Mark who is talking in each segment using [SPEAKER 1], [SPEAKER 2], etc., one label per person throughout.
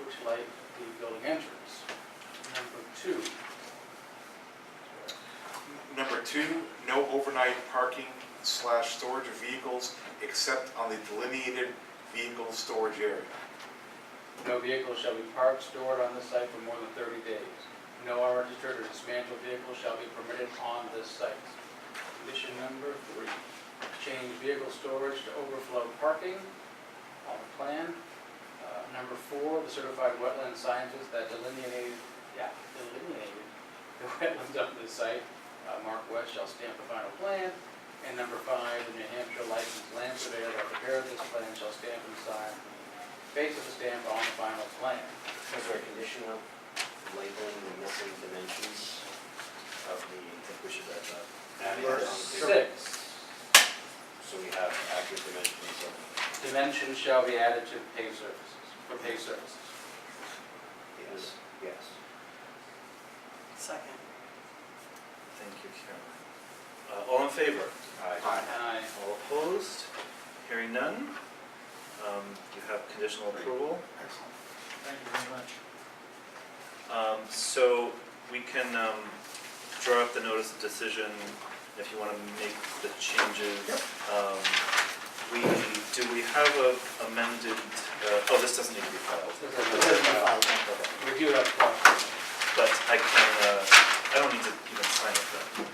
[SPEAKER 1] which light the building entrance. Number two,
[SPEAKER 2] Number two, no overnight parking slash storage of vehicles except on the delineated vehicle storage area.
[SPEAKER 1] no vehicle shall be parked, stored on this site for more than thirty days. No unregistered or dismantled vehicle shall be permitted on this site. Condition number three, change vehicle storage to overflow parking on the plan. Uh, Number four, the certified wetland scientist that delineated, yeah, delineated the wetlands of this site, uh, Mark West shall stamp the final plan. And number five, the New Hampshire licensed land surveyor that prepared this plan shall stamp and sign face of the stamp on the final plan.
[SPEAKER 3] Is there a condition of labeling the missing dimensions of the, I think we should add that.
[SPEAKER 1] That
[SPEAKER 3] Verse
[SPEAKER 1] is six.
[SPEAKER 3] So we have accurate dimensions of,
[SPEAKER 1] Dimensions shall be added to the pay services, for pay services.
[SPEAKER 3] yes, yes.
[SPEAKER 4] Second.
[SPEAKER 5] Thank you, Caroline. Uh, All in favor?
[SPEAKER 3] Aye.
[SPEAKER 1] Aye.
[SPEAKER 5] All opposed? Hearing none? Um, You have conditional approval.
[SPEAKER 2] Excellent.
[SPEAKER 5] Thank you very much. Um, So we can um, draw up the notice of decision if you want to make the changes. Um, We, do we have a amended, uh, oh, this doesn't need to be filed.
[SPEAKER 1] This
[SPEAKER 6] Uh,
[SPEAKER 1] is a-
[SPEAKER 5] Okay.
[SPEAKER 1] Review it up front.
[SPEAKER 5] But I can, uh, I don't need to even sign it then.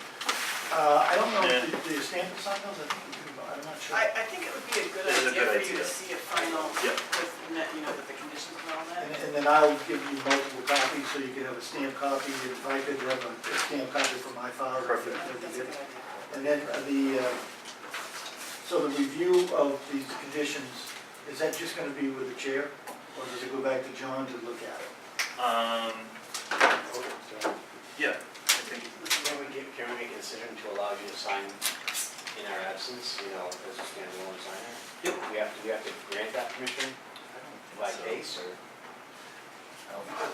[SPEAKER 6] Uh, I don't know,
[SPEAKER 5] Yeah.
[SPEAKER 6] if the the standard sign those, I think we do, but I'm not sure.
[SPEAKER 4] I, I think it would be a good
[SPEAKER 5] This is a
[SPEAKER 4] idea
[SPEAKER 5] good
[SPEAKER 4] for you
[SPEAKER 5] idea.
[SPEAKER 4] to see a final,
[SPEAKER 5] Yeah.
[SPEAKER 4] with, net- you know, with the conditions and all
[SPEAKER 6] And
[SPEAKER 4] that.
[SPEAKER 6] and then I'll give you multiple copies, so you can have a stamped copy, and if I could have a stamped copy from my file.
[SPEAKER 5] Perfect.
[SPEAKER 4] I think That's a good idea.
[SPEAKER 6] And then uh, the, uh, so the review of these conditions, is that just gonna be with the chair? Or does it go back to John to look at it?
[SPEAKER 5] Um,
[SPEAKER 1] So,
[SPEAKER 5] Yeah, I think,
[SPEAKER 3] Can we get, can we consider to allow you to sign in our absence, you know, as a standalone signer? Yep. We have to, we have to grant that permission by
[SPEAKER 5] so.
[SPEAKER 3] case or?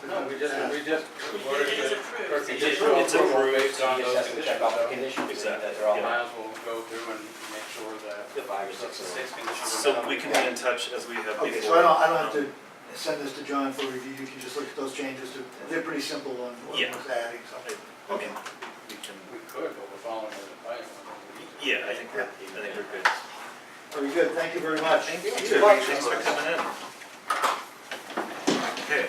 [SPEAKER 1] No, we just, we just.
[SPEAKER 4] It is approved.
[SPEAKER 1] For
[SPEAKER 3] It's
[SPEAKER 1] conditional
[SPEAKER 5] approved.
[SPEAKER 1] approval based on
[SPEAKER 3] You
[SPEAKER 1] those
[SPEAKER 3] just have to
[SPEAKER 1] conditions.
[SPEAKER 3] check off the
[SPEAKER 1] so
[SPEAKER 3] conditions and
[SPEAKER 5] Exactly,
[SPEAKER 3] that they're all
[SPEAKER 5] yeah.
[SPEAKER 3] met.
[SPEAKER 1] Miles will go through and make sure that
[SPEAKER 3] The five or
[SPEAKER 1] the
[SPEAKER 3] six. of them.
[SPEAKER 1] six conditions. are met.
[SPEAKER 5] so we can be in touch as we have before.
[SPEAKER 6] Okay, so I don't, I don't have to send this to John for review, you can just look at those changes, They're- they're pretty simple on what
[SPEAKER 5] Yeah.
[SPEAKER 6] was adding, so.
[SPEAKER 5] I mean, we can,
[SPEAKER 1] We could, but we're following the plan. We need to.
[SPEAKER 5] yeah, I think we're, I think we're good.
[SPEAKER 6] Very good, thank you very much.
[SPEAKER 5] Thanks for coming in. Okay.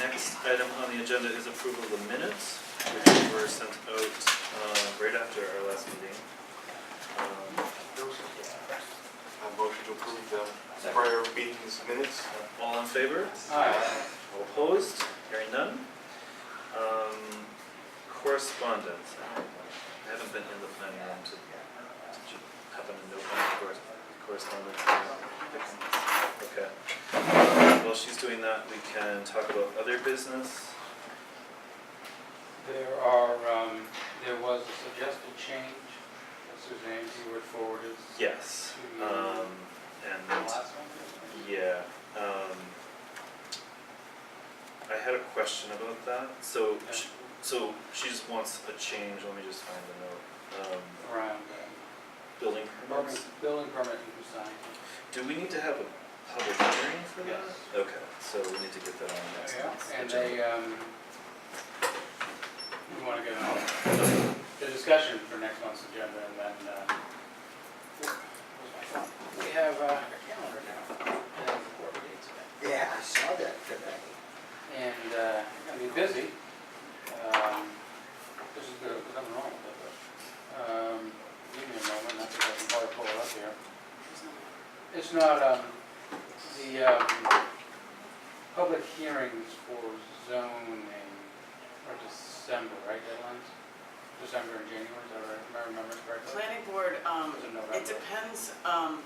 [SPEAKER 5] Next item on the agenda is approval of the minutes, which were sent out, uh, right after our last meeting. Um,
[SPEAKER 2] A motion to approve the
[SPEAKER 3] Second.
[SPEAKER 2] prior meeting's minutes.
[SPEAKER 5] All in favor?
[SPEAKER 1] Aye.
[SPEAKER 5] All opposed? Hearing none? Um, correspondence. I haven't been in the planning room to, did you happen to know any cor- correspondence? Okay. While she's doing that, we can talk about other business.
[SPEAKER 1] There are, um, there was a suggested change, that Suzanne, you were forwarded.
[SPEAKER 5] Yes. Um,
[SPEAKER 1] The
[SPEAKER 5] and,
[SPEAKER 1] last one?
[SPEAKER 5] yeah, um, I had a question about that. So,
[SPEAKER 1] Yeah.
[SPEAKER 5] sh- so she just wants a change. Let me just find the note. Um,
[SPEAKER 1] Around,
[SPEAKER 5] building
[SPEAKER 1] um,
[SPEAKER 5] permits.
[SPEAKER 1] building permit you signed.
[SPEAKER 5] Do we need to have a public hearing for that?
[SPEAKER 1] Yes.
[SPEAKER 5] Okay, so we need to get that on the next month's
[SPEAKER 1] And
[SPEAKER 5] agenda.
[SPEAKER 1] they, um, we wanna get on the discussion for next month's agenda and then, uh, where's my phone? we have, uh, a calendar now. and the board meetings.
[SPEAKER 3] Yeah, I saw that today.
[SPEAKER 1] And, uh, gonna be busy. Um, this is good, there's nothing wrong with it, but, um, give me a moment, I think I can probably pull it up here. It's not, um, the, um, public hearings for zoning are December, right, deadlines? December and January, is that right, if I remember correctly?
[SPEAKER 4] Planning board,
[SPEAKER 1] Or is
[SPEAKER 4] um,
[SPEAKER 1] it
[SPEAKER 4] it
[SPEAKER 1] November?
[SPEAKER 4] depends, um,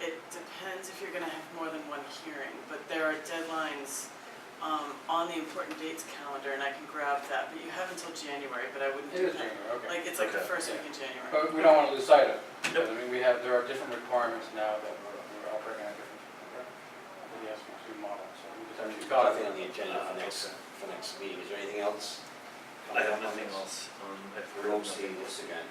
[SPEAKER 4] it depends if you're gonna have more than one hearing, but there are deadlines, um, on the important dates calendar, and I can grab that, but you have until January, but I wouldn't
[SPEAKER 1] It
[SPEAKER 4] do
[SPEAKER 1] is
[SPEAKER 4] that.
[SPEAKER 1] January, okay.
[SPEAKER 4] Like, it's like the
[SPEAKER 5] Okay.
[SPEAKER 4] first week in January.
[SPEAKER 1] But we don't want to lose sight of it.
[SPEAKER 5] Nope.
[SPEAKER 1] I mean, we have, there are different requirements now that we're we're operating on different, the SB2 model, so we just have to.
[SPEAKER 3] Nothing on the agenda for next,
[SPEAKER 5] Okay.
[SPEAKER 3] for next meeting, is there anything else?
[SPEAKER 5] I have nothing else. Um, I've
[SPEAKER 3] We
[SPEAKER 5] heard
[SPEAKER 3] won't see
[SPEAKER 5] nothing.
[SPEAKER 3] this again.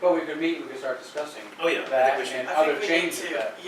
[SPEAKER 1] But we could meet, we could start discussing
[SPEAKER 5] Oh, yeah, I
[SPEAKER 1] that
[SPEAKER 5] think we should.
[SPEAKER 1] and
[SPEAKER 4] I think
[SPEAKER 1] other
[SPEAKER 4] we need
[SPEAKER 1] changes
[SPEAKER 4] to-
[SPEAKER 1] that.